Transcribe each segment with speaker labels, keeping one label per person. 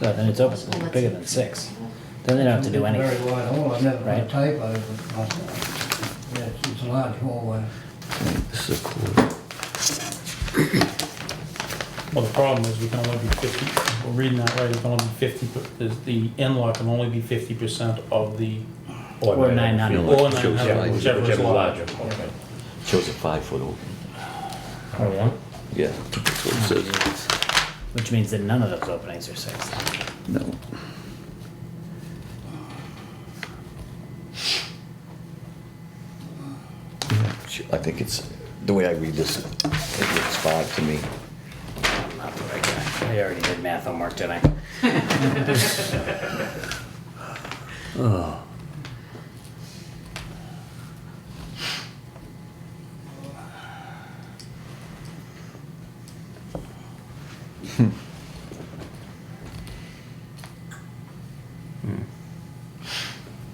Speaker 1: No, then it's open,
Speaker 2: Well,
Speaker 1: bigger
Speaker 2: that's-
Speaker 1: than six. Then they don't have to do
Speaker 3: Very
Speaker 1: anything.
Speaker 3: wide hall, I never put a
Speaker 1: Right.
Speaker 3: tape over it myself. Yeah, it's- it's a large hallway.
Speaker 4: This is a quarter.
Speaker 5: Well, the problem is we can only be fifty, we're reading that right, it can only be fifty, per- the, the in-law can only be fifty percent of the,
Speaker 1: Or nine
Speaker 4: I
Speaker 1: hundred.
Speaker 4: feel like
Speaker 5: Or
Speaker 4: it
Speaker 5: nine
Speaker 4: shows
Speaker 5: hundred,
Speaker 4: five-
Speaker 5: whichever is larger.
Speaker 4: Yeah. Shows a five foot opening.
Speaker 1: Or one,
Speaker 4: Yeah, that's what it says.
Speaker 1: which means that none of those openings are six.
Speaker 4: No. I think it's, the way I read this, it looks five to me.
Speaker 1: I'm not the right guy. I already did math homework, didn't I?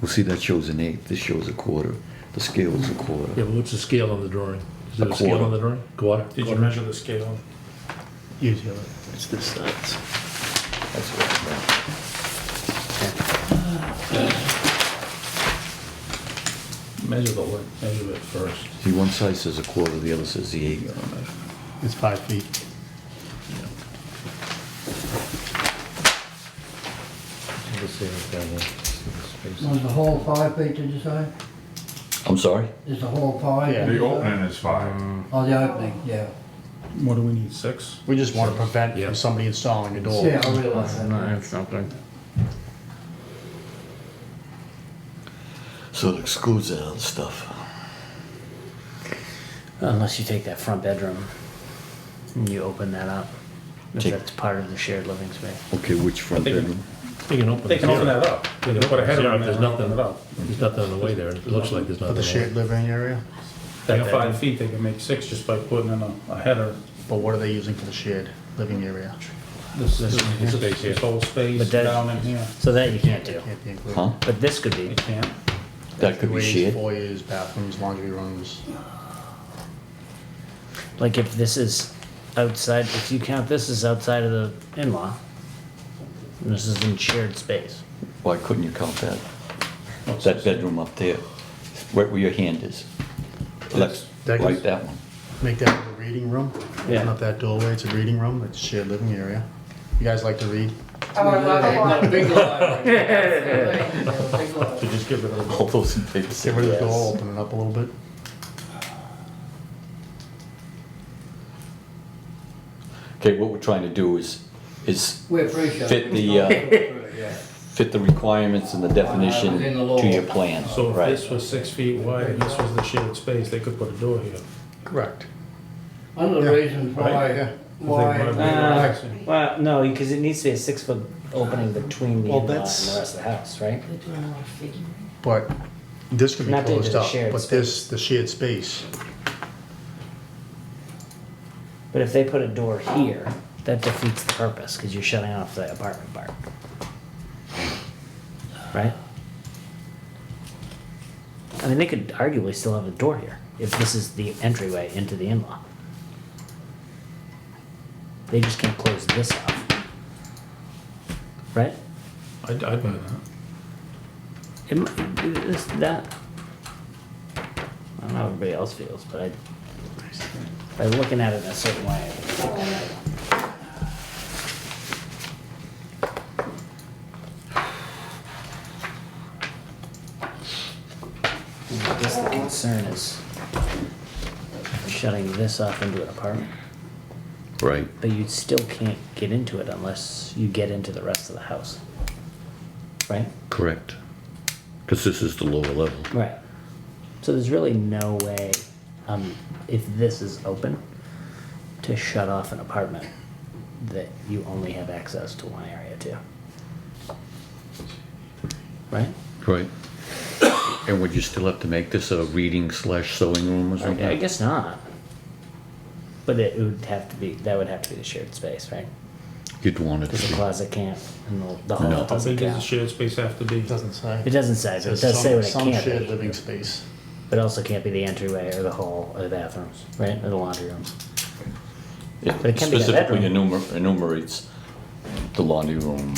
Speaker 4: Well, see, that shows an eighth, this shows a quarter, the scale is a quarter.
Speaker 6: Yeah, but what's the scale on the drawing? Is there
Speaker 4: A
Speaker 6: a scale
Speaker 4: quarter.
Speaker 6: on the drawing? Quarter?
Speaker 5: did you measure the scale?
Speaker 6: Usually. It's this size.
Speaker 4: That's what I meant.
Speaker 5: Measure the length, measure it first.
Speaker 4: See, one side says a quarter, the other says the eighth. on it.
Speaker 6: It's five feet.
Speaker 3: Was the hall five feet, did you say?
Speaker 4: I'm sorry?
Speaker 3: Is the hall five?
Speaker 6: Yeah.
Speaker 3: did you
Speaker 7: The
Speaker 3: say?
Speaker 7: opening is five.
Speaker 3: Oh, the opening, yeah.
Speaker 5: What do we need, six?
Speaker 8: We just want to prevent
Speaker 6: Yeah.
Speaker 8: from somebody installing a door.
Speaker 3: Yeah, I realize that.
Speaker 8: That's not good.
Speaker 4: So it excludes that other stuff.
Speaker 1: Unless you take that front bedroom and you open that up. If
Speaker 4: Take-
Speaker 1: that's part of the shared living space.
Speaker 4: Okay, which front
Speaker 5: think-
Speaker 4: bedroom?
Speaker 6: They can open.
Speaker 5: They can open that up, they can put a header
Speaker 6: Yeah,
Speaker 5: on
Speaker 6: if
Speaker 5: there
Speaker 6: there's
Speaker 5: and open
Speaker 6: nothing,
Speaker 5: it up.
Speaker 6: there's nothing on the way there. It looks like there's
Speaker 8: For
Speaker 6: nothing. on
Speaker 8: the shared living area?
Speaker 5: They got five feet, they can make six just by putting in a, a header.
Speaker 8: But what are they using for the shared living area?
Speaker 5: This,
Speaker 6: This
Speaker 5: this,
Speaker 6: is space
Speaker 5: this
Speaker 6: here.
Speaker 5: whole space
Speaker 1: But that-
Speaker 5: down in here.
Speaker 1: So that you can't do.
Speaker 8: Can't be included.
Speaker 4: Huh?
Speaker 1: But this could be,
Speaker 5: You can't,
Speaker 4: That could be
Speaker 8: Ways,
Speaker 4: shared.
Speaker 8: Foyers, bathrooms, laundry rooms.
Speaker 1: like if this is outside, if you count this as outside of the in-law, and this is in shared space.
Speaker 4: Why couldn't you count that?
Speaker 5: Oh,
Speaker 4: That bedroom up there, right where your hand is. Let's,
Speaker 8: That
Speaker 4: like
Speaker 8: goes-
Speaker 4: that one.
Speaker 8: Make that into a reading room.
Speaker 1: Yeah.
Speaker 8: Open up that doorway, it's a reading room, it's a shared living area. You guys like to read?
Speaker 2: Oh, I love it.
Speaker 3: Big library.
Speaker 2: Absolutely. Big love.
Speaker 5: so just give it a little.
Speaker 4: All those in favor say
Speaker 8: Get rid of the
Speaker 4: yes.
Speaker 8: door, open it up a little bit.
Speaker 4: Okay, what we're trying to do is, is
Speaker 3: We appreciate it.
Speaker 4: Fit the, uh,
Speaker 3: Yeah.
Speaker 4: fit the requirements and the definition
Speaker 3: Within the law.
Speaker 4: to your plan,
Speaker 5: So if
Speaker 4: right?
Speaker 5: this was six feet wide and this was the shared space, they could put a door here.
Speaker 8: Correct.
Speaker 3: One of the reasons
Speaker 8: Yeah.
Speaker 3: why,
Speaker 5: If they
Speaker 3: why,
Speaker 5: wanna
Speaker 1: Uh,
Speaker 5: be-
Speaker 1: Well, no, because it needs to be a six foot opening between the in-law
Speaker 8: Well,
Speaker 1: and the
Speaker 8: that's-
Speaker 1: rest of the house, right?
Speaker 2: They're doing a lot of figuring.
Speaker 8: But this could be
Speaker 1: Not that
Speaker 8: closed
Speaker 1: it's a
Speaker 8: up,
Speaker 1: shared
Speaker 8: but this, the shared space,
Speaker 1: But if they put a door here, that defeats the purpose because you're shutting off the apartment part. Right? I mean, they could arguably still have a door here if this is the entryway into the in law. They just can't close this off. Right?
Speaker 5: I'd, I'd buy that.
Speaker 1: It might, this, that. I don't know how everybody else feels, but I, by looking at it in a certain way, I think I guess the concern is shutting this off into an apartment,
Speaker 4: Right.
Speaker 1: but you still can't get into it unless you get into the rest of the house. Right?
Speaker 4: Correct. Because this is the lower level.
Speaker 1: Right. So there's really no way, um, if this is open, to shut off an apartment that you only have access to one area to. Right?
Speaker 4: Right. And would you still have to make this a reading slash sewing room or something?
Speaker 1: I, I guess not. But it would have to be, that would have to be the shared space, right?
Speaker 4: You'd want it
Speaker 1: Because the
Speaker 4: to be.
Speaker 1: closet can't, and the- the hall
Speaker 4: No.
Speaker 5: How
Speaker 1: doesn't
Speaker 5: big does the
Speaker 1: count.
Speaker 5: shared space have to be?
Speaker 8: it doesn't say.
Speaker 1: It doesn't say, but it does say what it
Speaker 8: Some shared
Speaker 1: can't be.
Speaker 8: living space.
Speaker 1: But also can't be the entryway or the hall or the bathrooms, right? Or the laundry rooms.
Speaker 4: Yeah,
Speaker 1: but it can be that
Speaker 4: Specifically
Speaker 1: bedroom.
Speaker 4: enumer- enumerates the laundry room,